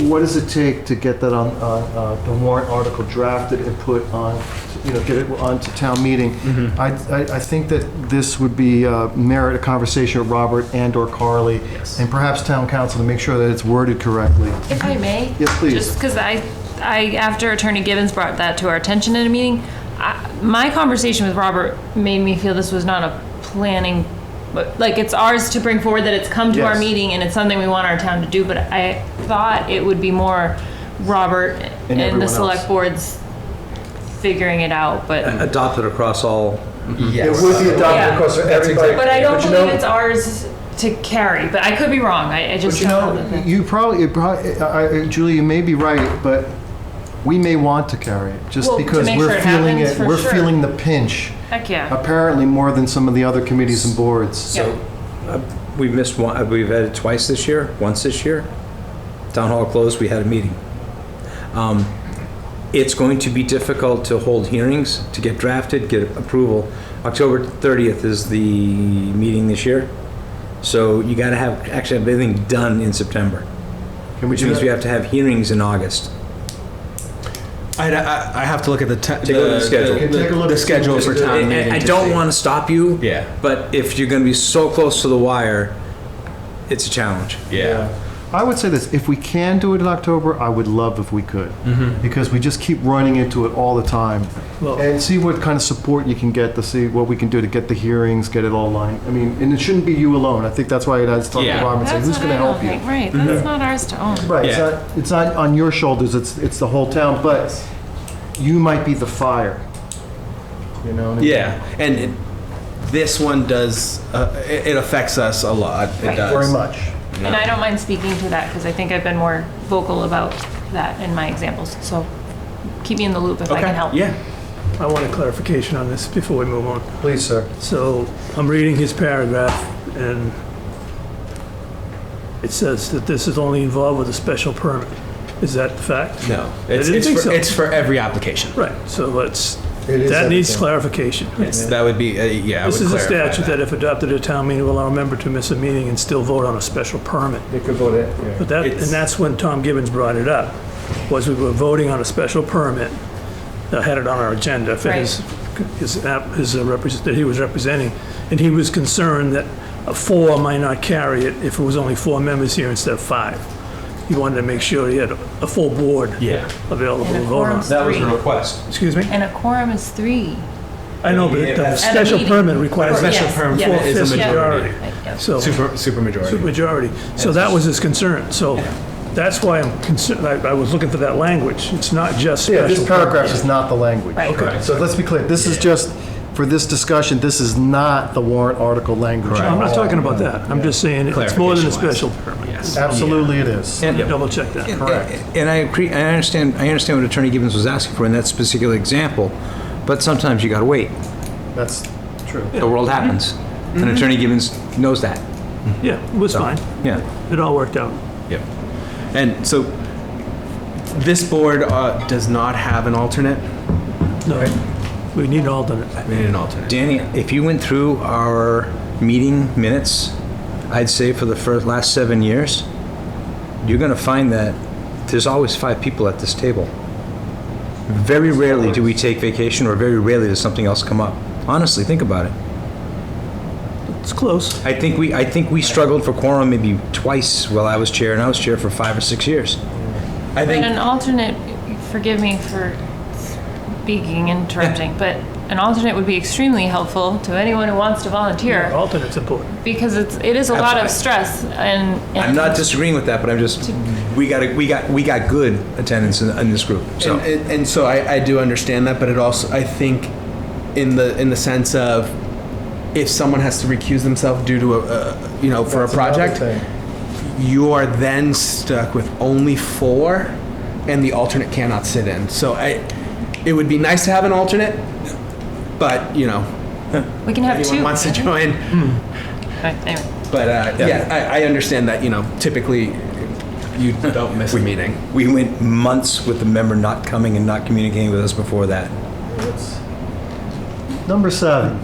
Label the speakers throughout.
Speaker 1: what does it take to get that on, on uh, the warrant article drafted and put on, you know, get it onto town meeting? I, I I think that this would be uh, merit a conversation with Robert and/or Carly,
Speaker 2: Yes.
Speaker 1: and perhaps town council to make sure that it's worded correctly.
Speaker 3: If I may?
Speaker 1: Yes, please.
Speaker 3: Just because I, I, after Attorney Gibbons brought that to our attention in a meeting, I, my conversation with Robert made me feel this was not a planning, but, like, it's ours to bring forward that it's come to our
Speaker 1: Yes.
Speaker 3: meeting and it's something we want our town to do, but I thought it would be more Robert and
Speaker 1: everyone
Speaker 3: the
Speaker 1: else.
Speaker 3: select boards figuring it out, but,
Speaker 4: adopted across all.
Speaker 2: Yes.
Speaker 1: It would be adopted
Speaker 3: Yeah.
Speaker 1: across
Speaker 2: That's
Speaker 1: everybody.
Speaker 2: exact-
Speaker 3: but I don't
Speaker 1: you
Speaker 3: believe
Speaker 1: know-
Speaker 3: it's ours to carry, but I could be wrong, I, I
Speaker 1: But
Speaker 3: just
Speaker 1: you
Speaker 3: don't have
Speaker 1: know,
Speaker 3: the-
Speaker 1: you probably, it probably, I- I- Julie, you may be right, but we may want to carry it, just
Speaker 3: Well, to
Speaker 1: because
Speaker 3: make sure
Speaker 1: we're
Speaker 3: it
Speaker 1: feeling
Speaker 3: happens,
Speaker 1: it,
Speaker 3: for
Speaker 1: we're
Speaker 3: sure.
Speaker 1: feeling the pinch,
Speaker 3: heck yeah.
Speaker 1: apparently more than some of the other committees and boards.
Speaker 3: Yeah.
Speaker 4: So uh, we missed one, uh, we've had it twice this year, once this year. Town hall closed, we had a meeting. Um, It's going to be difficult to hold hearings, to get drafted, get approval. October 30th is the meeting this year. So you got to have, actually have everything done in September,
Speaker 1: Can we
Speaker 4: which
Speaker 1: do
Speaker 4: means we
Speaker 1: that?
Speaker 4: have to have hearings in August.
Speaker 2: I'd- I, I have to look at the te-
Speaker 4: Take a look at the schedule.
Speaker 1: Take a look
Speaker 2: the
Speaker 1: at-
Speaker 2: schedule for
Speaker 4: I-
Speaker 2: town meeting.
Speaker 4: I I
Speaker 2: to
Speaker 4: don't
Speaker 2: see.
Speaker 4: want to stop you.
Speaker 2: Yeah.
Speaker 4: But if you're going to be so close to the wire, it's a challenge.
Speaker 2: Yeah.
Speaker 1: I would say this, if we can do it in October, I would love if we could,
Speaker 2: Mm-hmm.
Speaker 1: because we just keep running into it all the time. And see what kind of support you can get to see what we can do to get the hearings, get it all lined. I mean, and it shouldn't be you alone. I think that's why I was talking to
Speaker 2: Yeah.
Speaker 1: Robert, and saying,
Speaker 3: That's
Speaker 1: who's
Speaker 3: what
Speaker 1: going to
Speaker 3: I don't
Speaker 1: help you? Mm-hmm.
Speaker 3: think, Right, that's not ours to own.
Speaker 1: Right, it's
Speaker 2: Yeah.
Speaker 1: not, it's not on your shoulders, it's, it's the whole town, but you might be the fire. You know? what I mean?
Speaker 2: Yeah. And it, this one does, uh, it, it affects us a lot. It
Speaker 3: Right.
Speaker 2: does.
Speaker 1: Very much.
Speaker 3: And I don't mind speaking to that because I think I've been more vocal about that in my examples. So keep me in the loop if I
Speaker 2: Okay.
Speaker 3: can help.
Speaker 2: Yeah.
Speaker 5: I want a clarification on this before we move on.
Speaker 1: Please, sir.
Speaker 5: So I'm reading his paragraph, and it says that this is only involved with a special permit. Is that the fact?
Speaker 2: No. It's,
Speaker 5: didn't
Speaker 2: it's,
Speaker 5: think
Speaker 2: for,
Speaker 5: so.
Speaker 2: it's for every application.
Speaker 5: Right, so let's,
Speaker 1: It is
Speaker 5: that needs
Speaker 1: everything.
Speaker 5: clarification.
Speaker 2: It's, that would be, uh, yeah. I
Speaker 5: This
Speaker 2: would
Speaker 5: is a
Speaker 2: clarify
Speaker 5: statute that if adopted at town meeting will allow a member to miss a meeting and still vote on a special permit.
Speaker 1: They could vote it.
Speaker 5: But that,
Speaker 2: It's-
Speaker 5: and that's when Tom Gibbons brought it up, was we were voting on a special permit that had it on our agenda for his, his, app- his uh, represent, that he was representing. And he was concerned that a four might not carry it if it was only four members here instead of five. He wanted to make sure he had a a full board
Speaker 2: Yeah.
Speaker 5: available to
Speaker 3: And a
Speaker 5: vote
Speaker 3: quorum.
Speaker 5: on.
Speaker 4: That was the
Speaker 3: Three.
Speaker 4: request.
Speaker 5: Excuse me?
Speaker 3: And a quorum is three.
Speaker 5: I know, but
Speaker 2: Yeah,
Speaker 5: the
Speaker 2: that's-
Speaker 5: special
Speaker 3: meeting.
Speaker 5: permit requires.
Speaker 3: Or- Special yes, permit yes.
Speaker 2: is a
Speaker 5: Four-fifths
Speaker 2: majority.
Speaker 3: Right,
Speaker 5: So.
Speaker 2: Super, super majority.
Speaker 5: Majority. So that was his concern. So that's why I'm concerned, I I was looking for that language. It's not just
Speaker 1: Yeah,
Speaker 5: special.
Speaker 1: this paragraph is not the language.
Speaker 3: Right.
Speaker 2: Correct.
Speaker 1: So let's be clear, this is just, for this discussion, this is not the warrant article language.
Speaker 5: No, I'm not talking about that. I'm just saying it's more than a
Speaker 2: Clarification-wise.
Speaker 5: special permit.
Speaker 2: Yes.
Speaker 1: Absolutely it is.
Speaker 4: And-
Speaker 5: Double check that.
Speaker 4: And and I agree, I understand, I understand what Attorney Gibbons was asking for in that particular example, but sometimes you gotta wait.
Speaker 1: That's true.
Speaker 4: The world happens. And
Speaker 5: Mm-hmm.
Speaker 4: Attorney Gibbons knows that.
Speaker 5: Yeah, it was fine.
Speaker 4: Yeah.
Speaker 5: It all worked out.
Speaker 2: Yep. And so this board uh, does not have an alternate.
Speaker 5: No, we need an alternate.
Speaker 2: We need an alternate.
Speaker 4: Danny, if you went through our meeting minutes, I'd say for the first, last seven years, you're gonna find that there's always five people at this table. Very rarely do we take vacation, or very rarely does something else come up. Honestly, think about it.
Speaker 5: It's close.
Speaker 4: I think we, I think we struggled for quorum maybe twice while I was chair, and I was chair for five or six years.
Speaker 2: I
Speaker 3: But
Speaker 2: think
Speaker 3: an alternate, forgive me for speaking, interrupting, but an alternate would be extremely helpful to anyone who wants to volunteer
Speaker 5: Alternate's important.
Speaker 3: because it's, it is a lot of stress and.
Speaker 4: I'm not disagreeing with that, but I'm just, we got, we got, we got good attendance in, in this group, so.
Speaker 2: and, and, and so I, I do understand that, but it also I think in the in the sense of if someone has to recuse themselves due to a, a you know for a project, you are then stuck with only four, and the alternate cannot sit in. So I, it would be nice to have an alternate, but you know
Speaker 3: We can have
Speaker 2: anyone
Speaker 3: two.
Speaker 2: wants to join.
Speaker 3: Right, anyway.
Speaker 2: But uh, yeah, I, I understand that you know typically you don't miss a meeting.
Speaker 4: We went months with the member not coming and not communicating with us before that.
Speaker 1: Number seven,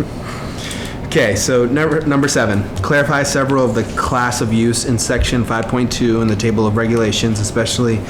Speaker 2: Okay, so number number seven, clarify several of the class of use in section 5.2 in the table of regulations, especially